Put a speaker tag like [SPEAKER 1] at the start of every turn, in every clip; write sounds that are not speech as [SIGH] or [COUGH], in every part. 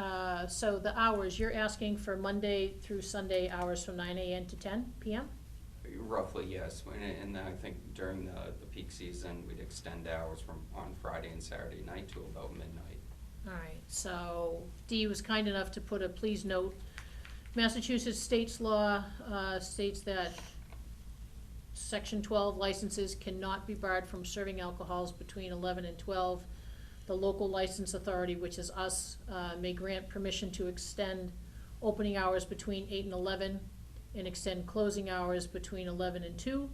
[SPEAKER 1] Uh, so the hours, you're asking for Monday through Sunday hours from nine AM to ten PM?
[SPEAKER 2] Roughly, yes, When- and then I think during the, the peak season, we'd extend hours from, on Friday and Saturday night to about midnight.
[SPEAKER 1] All right, so Dee was kind enough to put a please note. Massachusetts state's law uh, states that section twelve licenses cannot be barred from serving alcohols between eleven and twelve. The local license authority, which is us, uh, may grant permission to extend opening hours between eight and eleven and extend closing hours between eleven and two.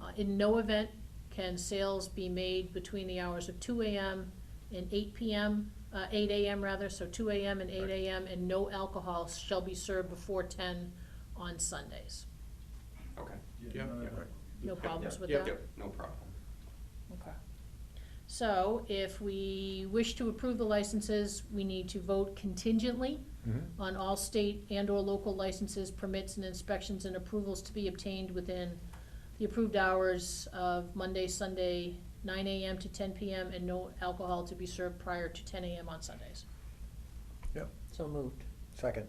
[SPEAKER 1] Uh, In no event can sales be made between the hours of two AM and eight PM, uh, eight AM rather, so two AM and eight
[SPEAKER 2] Right.
[SPEAKER 1] AM, and no alcohol shall be served before ten on Sundays.
[SPEAKER 2] Okay,
[SPEAKER 3] Yeah,
[SPEAKER 4] none of
[SPEAKER 3] yeah,
[SPEAKER 4] that.
[SPEAKER 3] right.
[SPEAKER 1] No problems with
[SPEAKER 3] Yep.
[SPEAKER 1] that?
[SPEAKER 2] yep, no problem.
[SPEAKER 1] Okay. So if we wish to approve the licenses, we need to vote contingently
[SPEAKER 4] Mm-hmm.
[SPEAKER 1] on all state and/or local licenses, permits, and inspections and approvals to be obtained within the approved hours of Monday, Sunday, nine AM to ten PM, and no alcohol to be served prior to ten AM on Sundays.
[SPEAKER 4] Yep,
[SPEAKER 5] So moved.
[SPEAKER 4] second,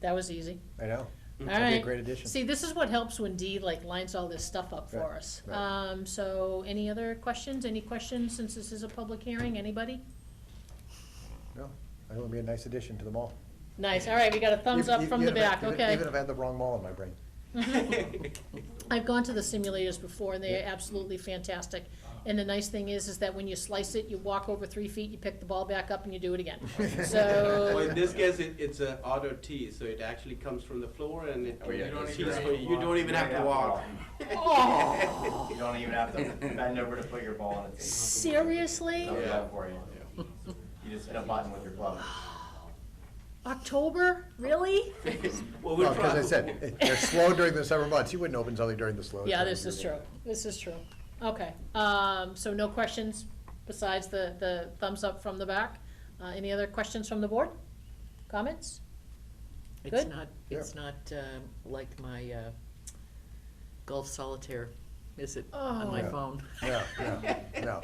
[SPEAKER 1] That was easy.
[SPEAKER 4] I know.
[SPEAKER 1] All
[SPEAKER 4] That'd be a
[SPEAKER 1] right.
[SPEAKER 4] great addition.
[SPEAKER 1] See, this is what helps when Dee like lines all this stuff up for
[SPEAKER 4] Right,
[SPEAKER 1] us.
[SPEAKER 4] right.
[SPEAKER 1] Um, so any other questions? Any questions since this is a public hearing? Anybody?
[SPEAKER 4] No, I think it'd be a nice addition to the mall.
[SPEAKER 1] Nice, all right, we got a thumbs
[SPEAKER 4] Even-
[SPEAKER 1] up from the
[SPEAKER 4] even if I-
[SPEAKER 1] back,
[SPEAKER 4] even-
[SPEAKER 1] okay.
[SPEAKER 4] Even if I had the wrong mall in my brain.
[SPEAKER 1] [LAUGHS] I've gone to the simulators before and they are absolutely fantastic. And the nice thing is, is that when you slice it, you walk over three feet, you pick the ball back up and you do it
[SPEAKER 4] [LAUGHS]
[SPEAKER 1] again.
[SPEAKER 3] [LAUGHS] Well,
[SPEAKER 1] So,
[SPEAKER 3] in this case, it, it's an auto tee, so it actually comes from the floor and it,
[SPEAKER 2] Oh, yeah,
[SPEAKER 3] you don't
[SPEAKER 2] it's
[SPEAKER 3] even
[SPEAKER 2] just-
[SPEAKER 3] have to, you don't even have to walk.
[SPEAKER 6] You don't even have to bend over to put your ball on the table.
[SPEAKER 1] seriously?
[SPEAKER 6] They'll do
[SPEAKER 3] Oh, Yeah.
[SPEAKER 6] that for you. You just hit a button with your glove.
[SPEAKER 1] October, really?
[SPEAKER 3] [LAUGHS] Well, we're
[SPEAKER 4] Well, because I
[SPEAKER 3] trying-
[SPEAKER 4] said, it- they're slow during the summer months, you wouldn't open something during the slow.
[SPEAKER 1] Yeah,
[SPEAKER 4] time.
[SPEAKER 1] this is true, this is true. Okay, um, so no questions besides the, the thumbs up from the back? Uh, any other questions from the board? Comments?
[SPEAKER 5] It's
[SPEAKER 1] Good.
[SPEAKER 5] not, it's not um, like my uh, golf solitaire, is it, on my
[SPEAKER 4] Oh.
[SPEAKER 5] phone?
[SPEAKER 4] No, no, no.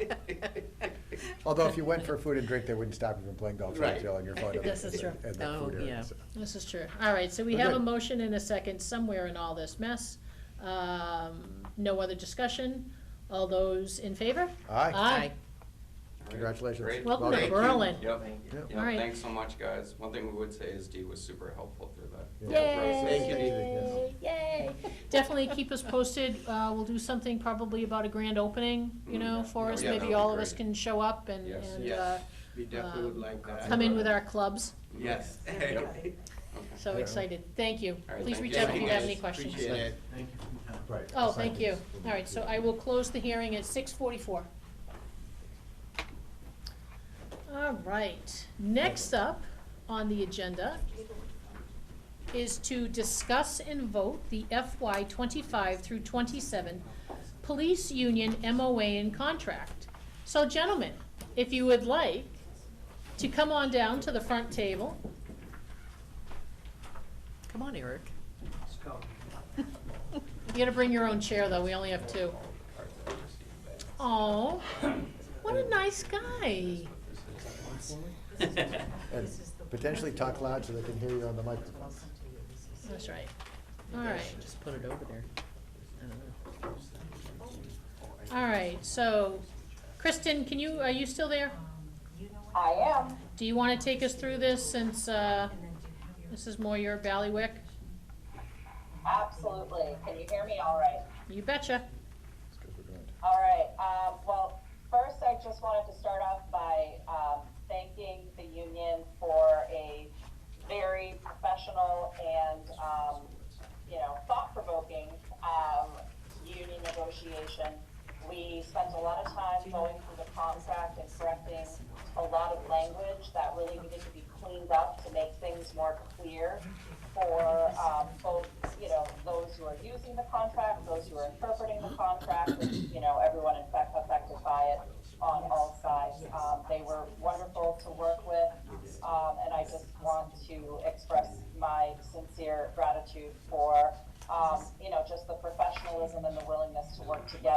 [SPEAKER 5] [LAUGHS]
[SPEAKER 4] Although if you went for food and drink, they wouldn't stop you from playing golf, so
[SPEAKER 3] Right.
[SPEAKER 4] you're on
[SPEAKER 1] [LAUGHS]
[SPEAKER 4] your phone.
[SPEAKER 1] This is true.
[SPEAKER 4] And the
[SPEAKER 5] Oh,
[SPEAKER 4] food area,
[SPEAKER 5] yeah.
[SPEAKER 4] so.
[SPEAKER 1] This is true. All right, so we have a
[SPEAKER 4] Okay.
[SPEAKER 1] motion and a second somewhere in all this mess. Um, no other discussion. All those in favor?
[SPEAKER 4] Aye,
[SPEAKER 1] Aye.
[SPEAKER 2] All right,
[SPEAKER 4] Congratulations.
[SPEAKER 2] great.
[SPEAKER 1] Welcome to
[SPEAKER 2] Thank you.
[SPEAKER 1] Berlin.
[SPEAKER 2] Yep,
[SPEAKER 6] Thank you.
[SPEAKER 4] Yep.
[SPEAKER 2] yep,
[SPEAKER 1] All right.
[SPEAKER 2] thanks so much, guys. One thing we would say is Dee was super helpful through that.
[SPEAKER 4] Yeah.
[SPEAKER 2] whole process.
[SPEAKER 1] Yay, yay. Definitely keep us posted. Uh, we'll do something probably about a grand opening, you know,
[SPEAKER 2] Mm.
[SPEAKER 1] for
[SPEAKER 2] Oh,
[SPEAKER 1] us.
[SPEAKER 2] yeah, that
[SPEAKER 1] Maybe
[SPEAKER 2] would
[SPEAKER 1] all
[SPEAKER 2] be
[SPEAKER 1] of us
[SPEAKER 2] great.
[SPEAKER 1] can show up and,
[SPEAKER 2] Yes.
[SPEAKER 1] and, uh, um,
[SPEAKER 3] Yes, we definitely would like that.
[SPEAKER 1] come in with our clubs.
[SPEAKER 3] Yes.
[SPEAKER 2] Yep. Okay.
[SPEAKER 1] So
[SPEAKER 4] Yeah.
[SPEAKER 1] excited. Thank you.
[SPEAKER 2] right,
[SPEAKER 1] Please
[SPEAKER 2] thank
[SPEAKER 1] reach
[SPEAKER 2] you.
[SPEAKER 1] out if
[SPEAKER 2] Thank
[SPEAKER 1] you
[SPEAKER 2] you,
[SPEAKER 1] have
[SPEAKER 2] guys.
[SPEAKER 1] any questions.
[SPEAKER 3] Appreciate it.
[SPEAKER 4] right.
[SPEAKER 1] Oh,
[SPEAKER 4] I'll sign
[SPEAKER 1] thank you.
[SPEAKER 4] these.
[SPEAKER 1] All right, so I will close the hearing at six forty-four. All right, next up on the agenda is to discuss and vote the FY twenty-five through twenty-seven Police Union MOA and contract. So gentlemen, if you would like to come on down to the front table.
[SPEAKER 5] Come on, Eric.
[SPEAKER 1] You gotta bring your own chair, though, we only have two. Oh, what a nice guy.
[SPEAKER 4] And potentially talk loud so they can hear you on the microphone.
[SPEAKER 1] That's right. All right,
[SPEAKER 5] Just put it over there. I don't know.
[SPEAKER 1] all right, so, Kristen, can you, are you still there?
[SPEAKER 7] I am.
[SPEAKER 1] Do you wanna take us through this since, uh, this is more your ballywick?
[SPEAKER 7] Absolutely. Can you hear me all right?
[SPEAKER 1] You betcha.
[SPEAKER 4] That's 'cause we're going to-
[SPEAKER 7] All right. Um, well, first, I just wanted to start off by um, thanking the union for a very professional and, um, you know, thought provoking um, union negotiation. We spent a lot of time going through the contract and correcting a lot of language that really needed to be cleaned up to make things more clear for um, both, you know, those who are using the contract, those who are interpreting the contract, and, you know, everyone in fact affected by it on all sides. Um, They were wonderful to work with, um, and I just want to express my sincere gratitude for, um, you know, just the professionalism and the willingness to work together um,